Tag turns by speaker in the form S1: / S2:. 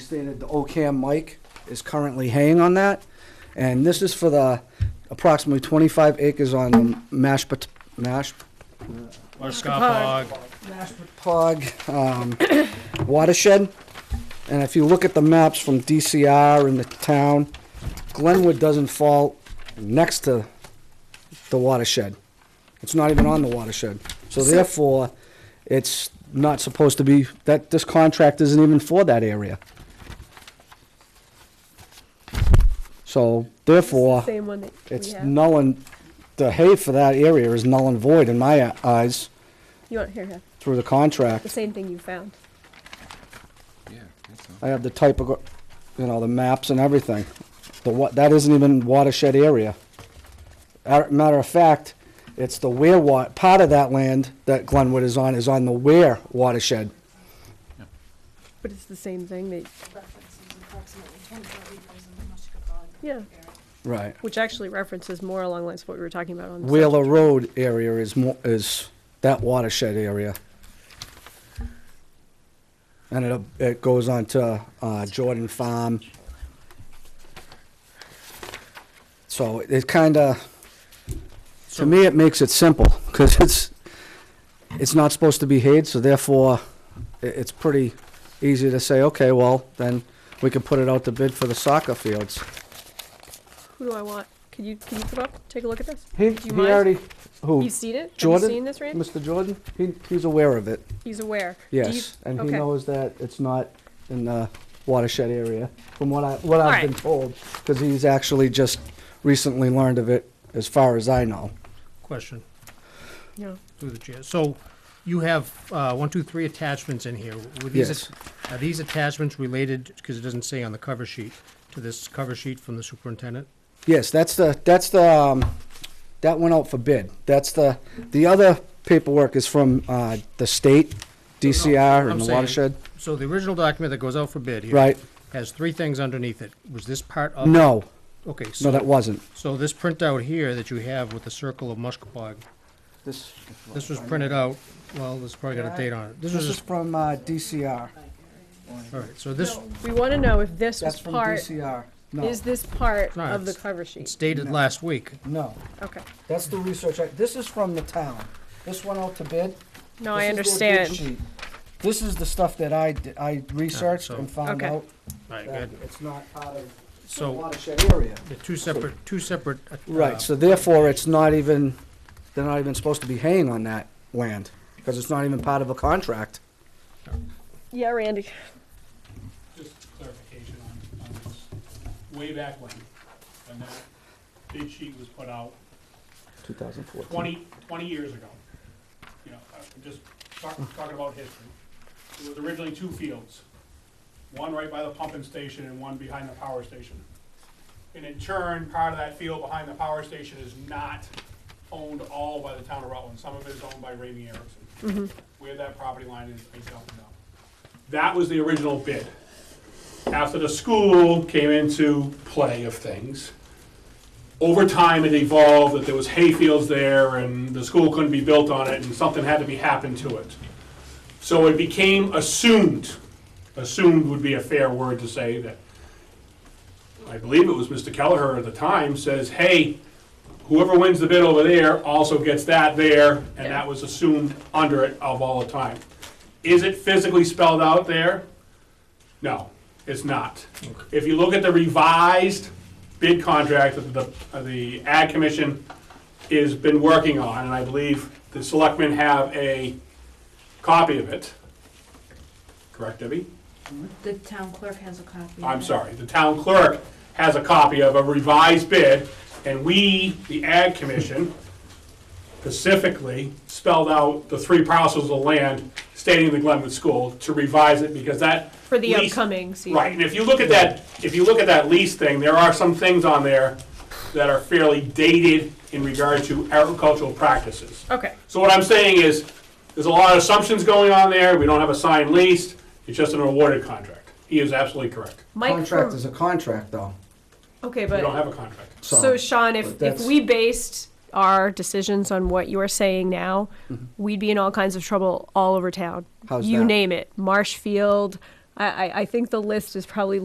S1: stated the OCAM mic is currently hanging on that. And this is for the approximately 25 acres on the Mash, Mash,
S2: Or Scott
S1: Pog um, watershed. And if you look at the maps from DCR and the town, Glenwood doesn't fall next to the watershed. It's not even on the watershed. So therefore, it's not supposed to be, that, this contract isn't even for that area. So therefore,
S3: Same one that we
S1: it's
S3: have.
S1: null and, the hay for that area is null and void in my eyes
S3: You want, here, here,
S1: through the contract.
S3: the same thing you found.
S4: Yeah, I think so.
S1: I have the type of, you know, the maps and everything. The what, that isn't even watershed area. Ar- Matter of fact, it's the Ware wa, part of that land that Glenwood is on is on the Ware watershed.
S3: But it's the same thing that,
S5: references approximately 24 acres in the Mushkapog
S3: yeah,
S5: area.
S1: Right.
S3: which actually references more along the lines of what we were talking about on. the site.
S1: Wheeler Road area is more, is that watershed area. And it, it goes on to, uh, Jordan Farm. So it kinda, to me, it makes it simple, cause it's, it's not supposed to be hayed, so therefore, i it's pretty easy to say, okay, well, then we can put it out to bid for the soccer fields.
S3: Who do I want? Can you, can you come up, take a look at this?
S1: He,
S3: Do you
S1: he
S3: mind?
S1: already, who?
S3: You've seen it? Have you
S1: Jordan?
S3: seen this, Randy?
S1: Mr. Jordan, he, he's aware of it,
S3: He's aware. Do you-
S1: yes, and he
S3: okay.
S1: knows that it's not in the watershed area, from what I, what I've
S3: Alright.
S1: been told, because he's actually just recently learned of it, as far as I know.
S2: Question
S3: No.
S2: through the chair. So you have, uh, one, two, three attachments in here. Were these
S1: Yes.
S2: att- Are these attachments related, because it doesn't say on the cover sheet, to this cover sheet from the superintendent?
S1: Yes, that's the, that's the, um, that went out for bid, that's the, the other paperwork is from, uh, the state, DCR
S2: I'm
S1: and the
S2: saying-
S1: watershed,
S2: So the original document that goes out for bid here.
S1: right?
S2: Has three things underneath it. Was this part of?
S1: No,
S2: Okay,
S1: no,
S2: so,
S1: that wasn't.
S2: so this printout here that you have with the circle of Mushkapog,
S1: This,
S2: this was printed out, well, this probably got a date on it. This was,
S1: this is
S2: just-
S1: from, uh, DCR,
S2: all right, so this,
S3: We want to know if this was
S1: that's from
S3: part,
S1: DCR, no,
S3: is this part
S2: No,
S3: of the
S2: it's-
S3: cover
S2: it's
S3: sheet?
S2: dated last week.
S1: no.
S3: Okay.
S1: That's the research. I, this is from the town. This went out to bid. This
S3: No,
S1: is their
S3: I
S1: bid
S3: understand.
S1: sheet. This is the stuff that I, d- I researched
S2: so-
S1: and found
S3: Okay.
S1: out
S2: All right,
S1: that
S2: good.
S1: it's not part of the
S2: So.
S1: watershed area.
S2: The two separate, two separate. uh,
S1: Right, so therefore, it's not even, they're not even supposed to be haying on that land, because it's not even part of a contract.
S3: Yeah, Randy.
S6: Just clarification on, on this. Way back when, when that bid sheet was put out,
S1: 2014.
S6: 20 20 years ago. You know, I'm just talk- talking about history. It was originally two fields, one right by the pumping station and one behind the power station. And in turn, part of that field behind the power station is not owned all by the town of Rutland. Some of it is owned by Ramey Erickson. Where that property line is, I don't know. That was the original bid. After the school came into play of things, over time, it evolved that there was hayfields there and the school couldn't be built on it and something had to be happened to it. So it became assumed, assumed would be a fair word to say that, I believe it was Mr. Kelleher at the time, says, hey, whoever wins the bid over there also gets that there, and that was assumed under it of all the time. Is it physically spelled out there? No, it's not. If you look at the revised bid contract that the, uh, the ad commission has been working on, and I believe the selectmen have a copy of it. Correct, Debbie?
S5: The town clerk has a copy. of
S6: I'm
S5: it.
S6: sorry, the town clerk has a copy of a revised bid, and we, the Ag Commission, specifically spelled out the three parcels of land stating the Glenwood School to revise it, because that.
S3: For the
S6: lease-
S3: upcoming season.
S6: Right, and if you look at that, if you look at that lease thing, there are some things on there that are fairly dated in regard to agricultural practices.
S3: Okay,
S6: So what I'm saying is, there's a lot of assumptions going on there, we don't have a signed lease, it's just an awarded contract. He is absolutely correct.
S3: Mike,
S1: Contract
S3: from-
S1: is a contract, though,
S3: okay,
S6: We don't
S3: but,
S6: have a contract.
S3: so
S1: so,
S3: Sean,
S1: but
S3: if, if
S1: that's-
S3: we based our decisions on what you are saying now, we'd be in all kinds of trouble all over town.
S1: Mm-hmm. How's
S3: You
S1: that?
S3: name it, Marshfield, I, I, I think the list is probably